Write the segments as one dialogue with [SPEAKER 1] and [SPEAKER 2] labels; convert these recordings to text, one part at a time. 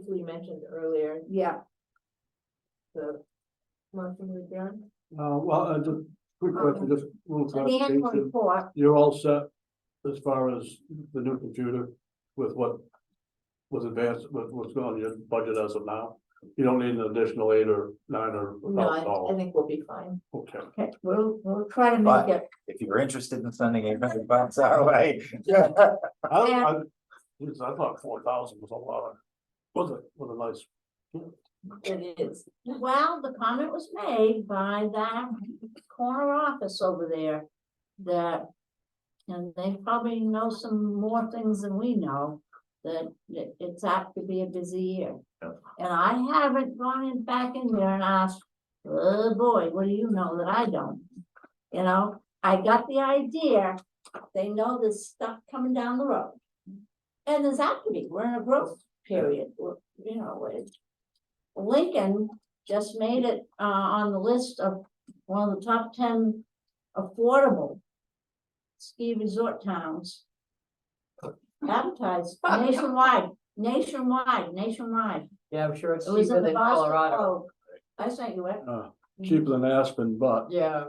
[SPEAKER 1] briefly mentioned earlier,
[SPEAKER 2] yeah,
[SPEAKER 1] the motion with John.
[SPEAKER 3] Uh, well, uh, just quick question, just one
[SPEAKER 2] the annual
[SPEAKER 3] clarification.
[SPEAKER 2] report,
[SPEAKER 3] You're all set as far as the new computer with what was advanced, with what's going on in your budget as of now? You don't need an additional eight or nine or
[SPEAKER 1] No,
[SPEAKER 3] about
[SPEAKER 1] I, I
[SPEAKER 3] all.
[SPEAKER 1] think we'll be fine.
[SPEAKER 3] Okay.
[SPEAKER 2] okay, we'll, we'll try to make it,
[SPEAKER 4] If you're interested in sending eight hundred bucks our way.
[SPEAKER 3] I, I,
[SPEAKER 2] Yeah.
[SPEAKER 3] geez, I thought four thousand was a lot. Was it, was a nice,
[SPEAKER 1] It is.
[SPEAKER 2] well, the comment was made by that corner office over there. That, and they probably know some more things than we know, that it- it's apt to be a busy year.
[SPEAKER 4] Yeah.
[SPEAKER 2] And I haven't gone in back in there and asked, oh boy, what do you know that I don't? You know, I got the idea, they know there's stuff coming down the road. And there's apt to be, we're in a growth period, we're- you know, it- Lincoln just made it uh on the list of one of the top ten affordable ski resort towns. Advertised nationwide, nationwide, nationwide.
[SPEAKER 1] Yeah, I'm sure it's
[SPEAKER 2] It was in the Boston Globe. I sent you it.
[SPEAKER 3] uh, cheaper than Aspen, but
[SPEAKER 1] Yeah.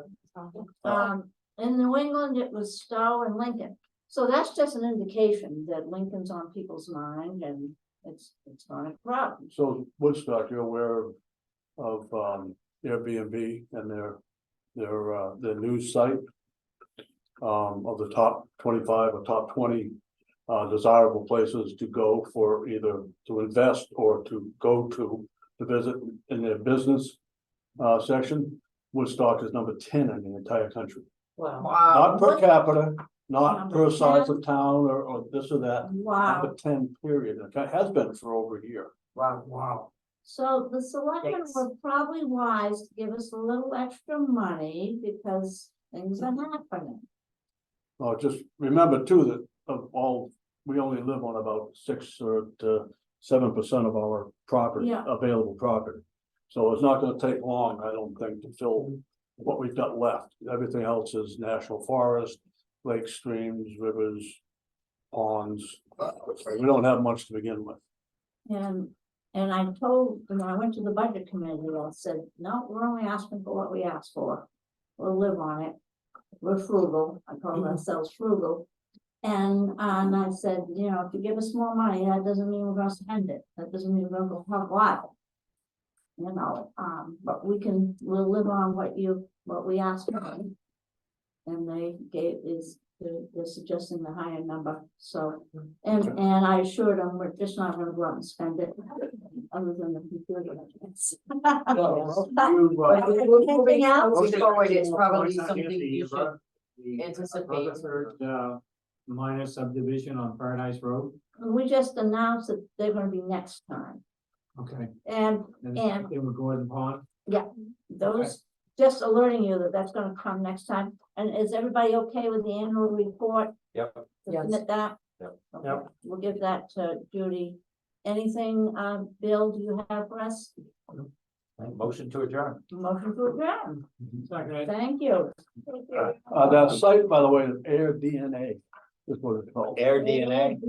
[SPEAKER 2] Um, in New England, it was Stowe and Lincoln. So that's just an indication that Lincoln's on people's mind and it's, it's not a problem.
[SPEAKER 3] So Woodstock, you're aware of um Airbnb and their, their uh, their news site. Um, of the top twenty-five or top twenty uh desirable places to go for either to invest or to go to. To visit in their business uh section, Woodstock is number ten in the entire country.
[SPEAKER 1] Wow.
[SPEAKER 2] Wow.
[SPEAKER 3] Not per capita, not
[SPEAKER 2] Number
[SPEAKER 3] per size of town or or this or that,
[SPEAKER 2] Wow.
[SPEAKER 3] number ten period, and it has been for over a year.
[SPEAKER 1] Wow, wow.
[SPEAKER 2] So the selectmen
[SPEAKER 1] Yikes.
[SPEAKER 2] were probably wise to give us a little extra money because things are happening.
[SPEAKER 3] Well, just remember too that of all, we only live on about six or to seven percent of our property,
[SPEAKER 2] Yeah.
[SPEAKER 3] available property. So it's not gonna take long, I don't think, to fill what we've got left. Everything else is national forest, lakes, streams, rivers, ponds. We don't have much to begin with.
[SPEAKER 2] And, and I told, when I went to the budget committee, I said, no, we're only asking for what we asked for. We'll live on it. We're frugal. I call ourselves frugal. And, and I said, you know, if you give us more money, that doesn't mean we're gonna spend it. That doesn't mean we're gonna go have a lot. You know, um, but we can, we'll live on what you, what we asked for. And they gave is, they're they're suggesting the higher number, so. And,
[SPEAKER 3] Okay.
[SPEAKER 2] and I assured them, we're just not gonna go out and spend it, other than the computer. grants." Anything else?
[SPEAKER 1] Moving forward, it's probably something you should anticipate.
[SPEAKER 5] Uh, minor subdivision on Paradise Road,
[SPEAKER 2] We just announced that they're gonna be next time,
[SPEAKER 5] okay,
[SPEAKER 2] and
[SPEAKER 5] and
[SPEAKER 2] And-
[SPEAKER 5] they were Gordon Pond,
[SPEAKER 2] those, just alerting you that that's gonna come next time. And is everybody okay with the annual report?
[SPEAKER 4] Yep.
[SPEAKER 1] Yes.
[SPEAKER 2] Submit that?
[SPEAKER 4] Yep.
[SPEAKER 2] Okay,
[SPEAKER 5] Yep.
[SPEAKER 2] We'll give that to Judy. Anything, uh, Bill, do you have for us?
[SPEAKER 4] Motion to adjourn.
[SPEAKER 2] Motion to adjourn,
[SPEAKER 5] second.
[SPEAKER 2] thank you.
[SPEAKER 3] Uh, that site, by the way, is Air DNA is what it's called.
[SPEAKER 4] Air DNA.